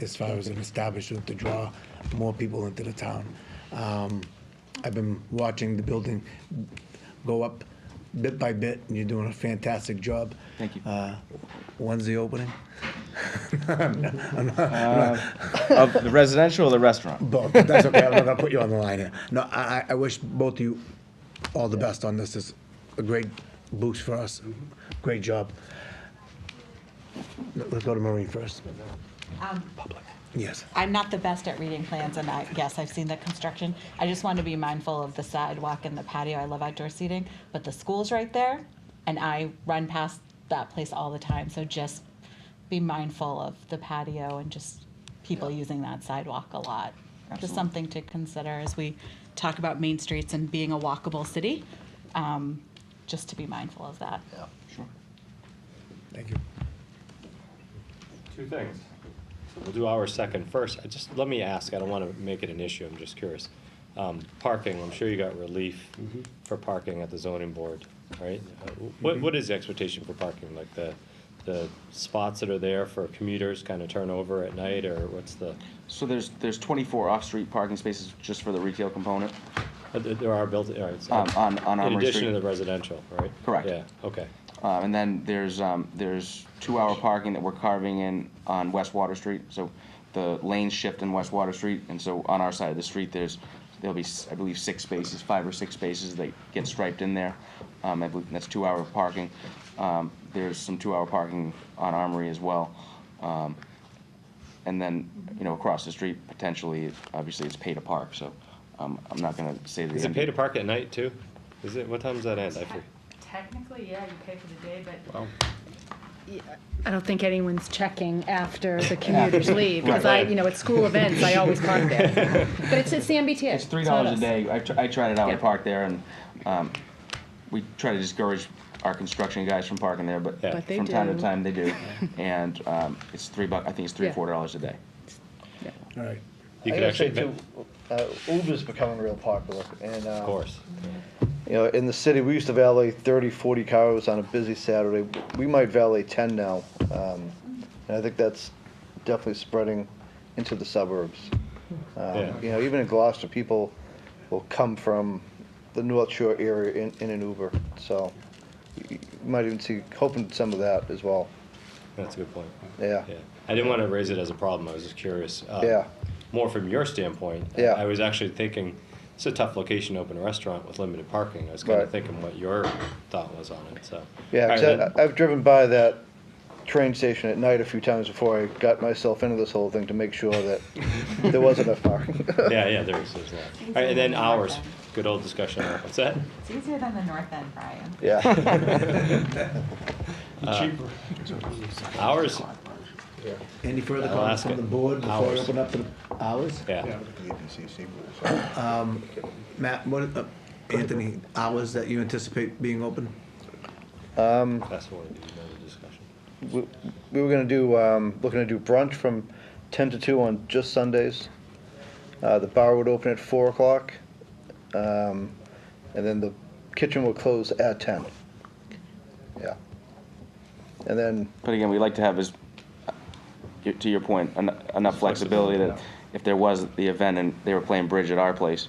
as far as an establishment to draw more people into the town. Um, I've been watching the building go up bit by bit, and you're doing a fantastic job. Thank you. Uh, When's the opening? Of the residential or the restaurant? Both, but that's okay, I'm not gonna put you on the line here. No, I, I- I wish both of you all the best on this, it's a great boost for us, great job. Let- Let's go to Maureen first. Yes, I'm not the best at reading plans, and I, yes, I've seen the construction. I just want to be mindful of the sidewalk and the patio. I love outdoor seating, but the school's right there, and I run past that place all the time. So just be mindful of the patio and just people using that sidewalk a lot. Just Absolutely. something to consider as we talk about main streets and being a walkable city. Um, just to be mindful of that. Sure. thank you. Two things. We'll do our second first. I just, let me ask, I don't want to make it an issue, I'm just curious. Um, Parking, I'm sure you got relief Mm-hmm. for parking at the zoning board, right? Uh, What, what is the expectation for parking? Like the, the spots that are there for commuters kind of turn over at night, or what's the, So there's, there's 24 off-street parking spaces just for the retail component. uh, there there are built, all right. so- Um, on- on In Armory addition to Street. the residential, right? Correct. Yeah, okay. Um, And then there's, um, there's two-hour parking that we're carving in on West Water Street. So the lanes shift in West Water Street, and so on our side of the street, there's, there'll be, s- I believe, six spaces, five or six spaces that get striped in there. Um, I believe that's two-hour parking. Um, There's some two-hour parking on Armory as well. Um, And then, you know, across the street, potentially, obviously, it's pay to park, so um, I'm not gonna say the. Is it end- pay to park at night too? Is it, what time does that end? I forget. Technically, yeah, you pay for the day, but Wow. I don't think anyone's checking after the commuters leave, because I, Right. you know, at school events, I always park there. But it's, it's the MBTA. It's three not dollars a us. day. I, tr- I tried it out. I Yeah. parked there, and um, we try to discourage our construction guys from parking there, but Yeah. But they from time to do. time they do. and um, it's three bucks. I think it's three Yeah. four dollars a day. All right, You I could gotta say actually, too, of uh, Uber's becoming real popular, and, uh, course. you know, in the city, we used to valet 30, 40 cars on a busy Saturday. We might valet 10 now, um, and I think that's definitely spreading into the suburbs. Um, Yeah. You know, even in Gloucester, people will come from the North Shore area in, in an Uber, so you you might even see, hoping some of that as well, That's a good point. yeah. Yeah, I didn't want to raise it as a problem, I was just curious. uh, Yeah. More from your standpoint. I- Yeah. I was actually thinking, it's a tough location to open a restaurant with limited parking. I was kind of Right. thinking what your thought was on it, so. Yeah, All right, 'cause I- then. I, have driven by that train station at night a few times before I got myself into this whole thing to make sure that there was enough parking. Yeah, yeah, there is, there's a lot. All right, and then hours, good old discussion, on- what's that? It's easier than the north end, Brian. yeah. Hours, any further I'll comments ask from it. the board before I Hours. open up to the hours? yeah. Matt, what, uh, Anthony, hours that you anticipate being open? That's what we need, another discussion. we, we were going to do, um, looking to do brunch from 10 to 2 on just Sundays. Uh, the bar would open at 4 o'clock, um, and then the kitchen would close at 10. Yeah. And then But again, we like to have is, uh, y- to your point, en- enough flexibility that if there was the event and they were playing bridge at our place,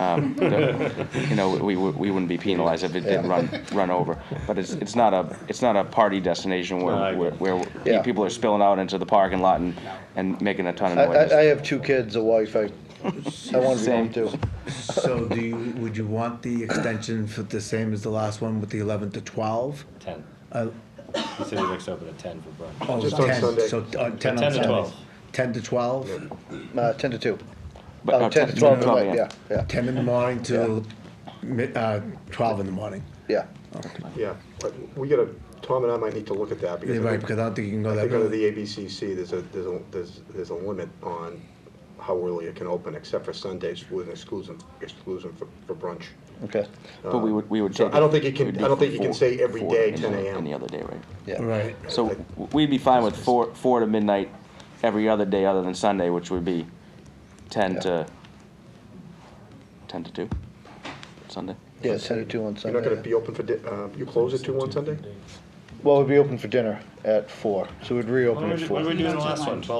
um, the- you know, we, we we wouldn't be penalized if it did run run over. But it's it's not a it's not a party destination where No, I where, agree. where pe- Yeah. people are spilling out into the parking lot and and making a ton I, of noise. I, I have two kids, a wife. I, I want to be home Same. too. So do you, would you want the extension for the same as the last one with the eleven to twelve? Ten. Uh, The city likes to open at ten for brunch. oh, Just on 10, Sunday. So, uh, ten on 10 to Sundays. 12. Ten to twelve? Uh, 10 to 2. But- Oh, uh, 10 to 12, at 12, night, yeah, yeah, 10 in the morning to mi- uh, 12 in the morning. yeah. Yeah, but we gotta, Tom and I might need to look at that because. You're right, because I don't think you can go I that think under early. the ABCC, there's a, there's a, there's, there's a limit on how early it can open, except for Sundays with an exclusion, exclusion for, for brunch. Okay. But we would, we would So take. I don't think you it can- would be I don't think from you can four- say every four to day any 10 other- a.m.. Any other day, right? Yeah. Right. So w- we'd be fine with four, four to midnight every other day other than Sunday, which would be ten Yeah. to, ten to two, Sunday. Yeah, 10 to 2 on You're Sunday. not gonna be open for, di- uh, you close at two on Sunday? Well, we'd be open for dinner at 4, so we'd reopen What at did 4. we do in the last one? Twelve.